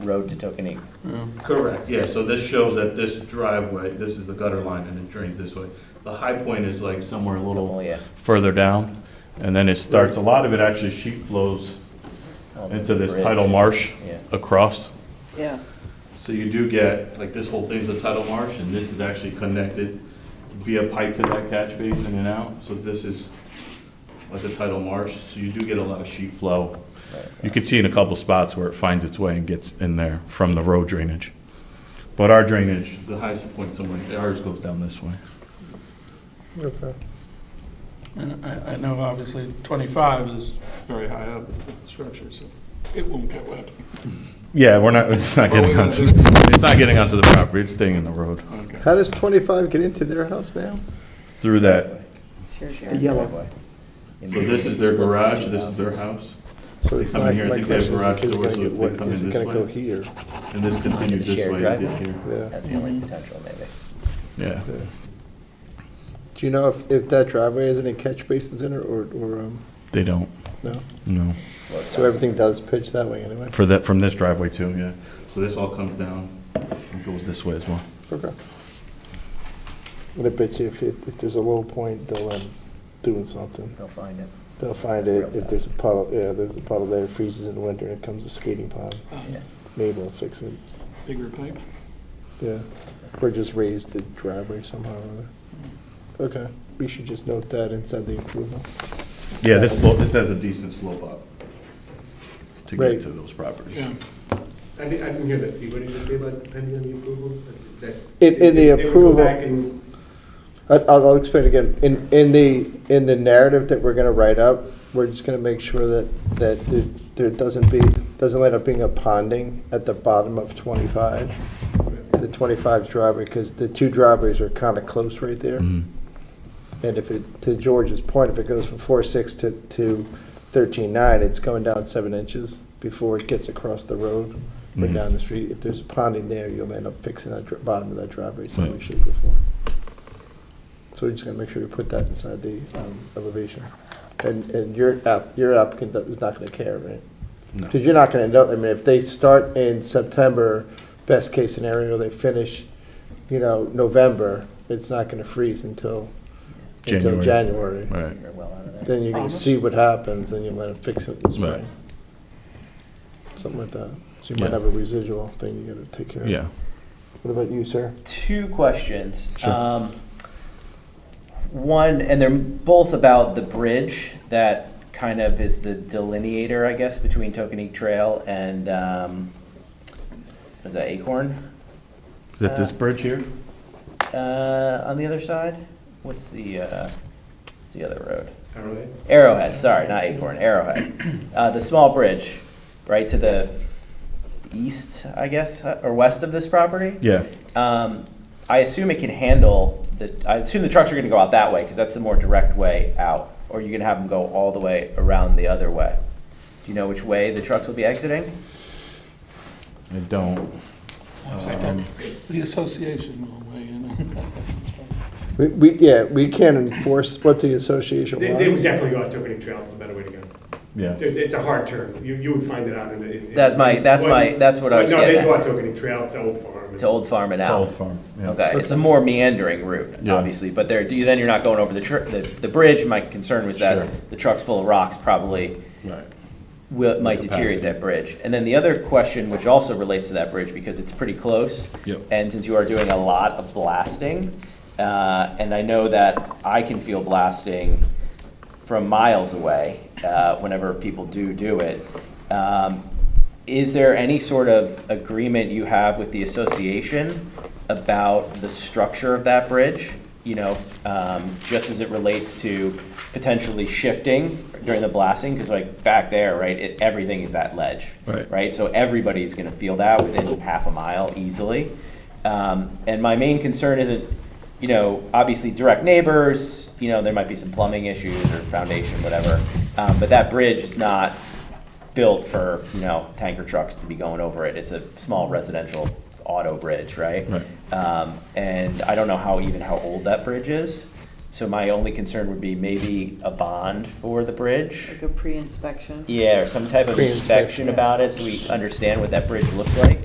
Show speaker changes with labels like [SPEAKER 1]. [SPEAKER 1] road to Tokenique.
[SPEAKER 2] Correct, yeah, so this shows that this driveway, this is the gutter line, and it drains this way. The high point is like somewhere a little
[SPEAKER 1] Oh, yeah.
[SPEAKER 2] further down, and then it starts, a lot of it actually sheet flows
[SPEAKER 1] Um,
[SPEAKER 2] into this
[SPEAKER 1] bridge.
[SPEAKER 2] tidal marsh
[SPEAKER 1] Yeah.
[SPEAKER 2] across.
[SPEAKER 3] Yeah.
[SPEAKER 2] So you do get, like, this whole thing's a tidal marsh, and this is actually connected via pipe to that catch basin and out, so this is like a tidal marsh, so you do get a lot of sheet flow.
[SPEAKER 1] Right.
[SPEAKER 2] You can see in a couple spots where it finds its way and gets in there from the road drainage. But our drainage, the highest point somewhere, ours goes down this way.
[SPEAKER 4] Okay.
[SPEAKER 5] And I, I know obviously 25 is very high up in the structure, so it won't get wet.
[SPEAKER 2] Yeah, we're not, it's not
[SPEAKER 5] What are we
[SPEAKER 2] getting
[SPEAKER 5] gonna
[SPEAKER 2] onto,
[SPEAKER 5] do?
[SPEAKER 2] it's not getting onto the property, it's staying in the road
[SPEAKER 5] Okay.
[SPEAKER 4] How does 25 get into their house now?
[SPEAKER 2] through that.
[SPEAKER 3] Sure, sure.
[SPEAKER 1] Driveway. In
[SPEAKER 2] So
[SPEAKER 1] the-
[SPEAKER 2] this is their garage, this is their house,
[SPEAKER 4] So
[SPEAKER 2] They
[SPEAKER 4] it's
[SPEAKER 2] come in
[SPEAKER 4] not-
[SPEAKER 2] here, I
[SPEAKER 4] my
[SPEAKER 2] think they have
[SPEAKER 4] question is,
[SPEAKER 2] garage
[SPEAKER 4] is it
[SPEAKER 2] doors,
[SPEAKER 4] gonna
[SPEAKER 2] so
[SPEAKER 4] get
[SPEAKER 2] they
[SPEAKER 4] wet?
[SPEAKER 2] come
[SPEAKER 4] Is
[SPEAKER 2] in
[SPEAKER 4] it
[SPEAKER 2] this
[SPEAKER 4] gonna go
[SPEAKER 2] way?
[SPEAKER 4] here?
[SPEAKER 2] and this continues this
[SPEAKER 1] Shared
[SPEAKER 2] way, it did
[SPEAKER 1] driveway?
[SPEAKER 2] here.
[SPEAKER 4] Yeah.
[SPEAKER 1] That's the
[SPEAKER 3] Mm-hmm.
[SPEAKER 1] only potential, maybe.
[SPEAKER 2] Yeah.
[SPEAKER 4] yeah. Do you know if, if that driveway has any catch basins in it or, or, um,
[SPEAKER 2] They don't,
[SPEAKER 4] no?
[SPEAKER 2] no.
[SPEAKER 4] So everything does pitch that way anyway?
[SPEAKER 2] For that, from this driveway too, yeah. So this all comes down and goes this way as well.
[SPEAKER 4] Okay. And I bet you if, it- if there's a low point, they'll, um, doing something.
[SPEAKER 1] They'll find it.
[SPEAKER 4] They'll find it, if there's a puddle, yeah, there's a puddle there, it freezes in the winter, and it comes a skating pond,
[SPEAKER 1] Yeah.
[SPEAKER 4] maybe we'll fix it,
[SPEAKER 5] Bigger pipe?
[SPEAKER 4] yeah. Or just raise the driveway somehow or other. Okay, we should just note that inside the approval.
[SPEAKER 2] Yeah, this slope, this has a decent slope up to
[SPEAKER 4] Right.
[SPEAKER 2] get to those properties.
[SPEAKER 5] Yeah.
[SPEAKER 6] I didn't, I didn't hear that, Steve, what did you say about depending on the approval? That-
[SPEAKER 4] In- in the
[SPEAKER 6] they would go
[SPEAKER 4] approval-
[SPEAKER 6] back and-
[SPEAKER 4] I- I'll, I'll explain again. In, in the, in the narrative that we're gonna write up, we're just gonna make sure that, that there- there doesn't be, doesn't end up being a ponding at the bottom of twenty-five, the 25 driveway, because the two driveways are kind of close right there.
[SPEAKER 2] Mhm.
[SPEAKER 4] And if it, to George's point, if it goes from four six to, to thirteen nine, it's going down seven inches before it gets across the road or
[SPEAKER 2] Mhm.
[SPEAKER 4] down the street. If there's a ponding there, you'll end up fixing that dr- bottom of that driveway some way,
[SPEAKER 2] Right.
[SPEAKER 4] shape, or form. So we're just gonna make sure we put that inside the um, elevation. And, and your app, your applicant is not gonna care, right?
[SPEAKER 2] No.
[SPEAKER 4] Because you're not gonna know, I mean, if they start in September, best case scenario, they finish, you know, November, it's not gonna freeze until, until
[SPEAKER 2] January.
[SPEAKER 4] January.
[SPEAKER 2] Right.
[SPEAKER 1] You're well out of there.
[SPEAKER 4] Then you're gonna see what happens, and you let it fix it this
[SPEAKER 2] Right.
[SPEAKER 4] way. Something like that. So you
[SPEAKER 2] Yeah.
[SPEAKER 4] might have a residual thing you gotta take care of.
[SPEAKER 2] Yeah.
[SPEAKER 4] What about you, sir?
[SPEAKER 1] two questions.
[SPEAKER 2] Sure.
[SPEAKER 1] Um, one, and they're both about the bridge that kind of is the delineator, I guess, between Tokenique Trail and um, is that Acorn
[SPEAKER 2] Is that this bridge here?
[SPEAKER 1] uh, on the other side? What's the uh, what's the other road?
[SPEAKER 6] Alright.
[SPEAKER 1] Arrowhead, sorry, not Acorn, Arrowhead. Uh, the small bridge, right to the east, I guess, or west of this property.
[SPEAKER 2] Yeah.
[SPEAKER 1] Um, I assume it can handle the, I assume the trucks are gonna go out that way, because that's the more direct way out. Or you're gonna have them go all the way around the other way. Do you know which way the trucks will be exiting?
[SPEAKER 2] I don't. Um,
[SPEAKER 5] The association will weigh in.
[SPEAKER 4] We, we, yeah, we can't enforce what the association
[SPEAKER 6] They, they would
[SPEAKER 4] wants.
[SPEAKER 6] definitely go out Tokenic Trail, it's a better way to go.
[SPEAKER 2] Yeah.
[SPEAKER 6] It's, it's a hard turn, you, you would find it out in the. in-
[SPEAKER 1] That's my- that's my- that's what I
[SPEAKER 6] But
[SPEAKER 1] was
[SPEAKER 6] No, they
[SPEAKER 1] getting
[SPEAKER 6] go
[SPEAKER 1] at.
[SPEAKER 6] out Tokenic Trail to Old Farm. and-
[SPEAKER 1] To Old Farm and out?
[SPEAKER 2] Old farm. yeah.
[SPEAKER 1] Okay, it's a more meandering route,
[SPEAKER 2] Yeah.
[SPEAKER 1] obviously, but there, do you- then you're not going over the tr- the, the bridge. My concern was
[SPEAKER 2] Sure.
[SPEAKER 1] that the trucks full of rocks probably
[SPEAKER 2] Right.
[SPEAKER 1] will, might
[SPEAKER 2] Capacity.
[SPEAKER 1] deteriorate that bridge. And then the other question, which also relates to that bridge, because it's pretty close.
[SPEAKER 2] Yep.
[SPEAKER 1] And since you are doing a lot of blasting, uh, and I know that I can feel blasting from miles away, uh, whenever people do do it. Um, is there any sort of agreement you have with the association about the structure of that bridge? You know, um, just as it relates to potentially shifting during the blasting, because like back there, right, it, everything is that ledge.
[SPEAKER 2] Right.
[SPEAKER 1] Right, so everybody's gonna feel that within half a mile easily. Um, and my main concern isn't you know, obviously direct neighbors, you know, there might be some plumbing issues or foundation, whatever. Um, but that bridge is not built for, you know, tanker trucks to be going over it. It's a small residential auto bridge, right?
[SPEAKER 2] Right.
[SPEAKER 1] Um, and I don't know how, even how old that bridge is. So my only concern would be maybe a bond for the bridge.
[SPEAKER 3] Like a pre-inspection?
[SPEAKER 1] Yeah, or some type of
[SPEAKER 4] Pre-inspection,
[SPEAKER 1] inspection about it, so we understand what that bridge looks like.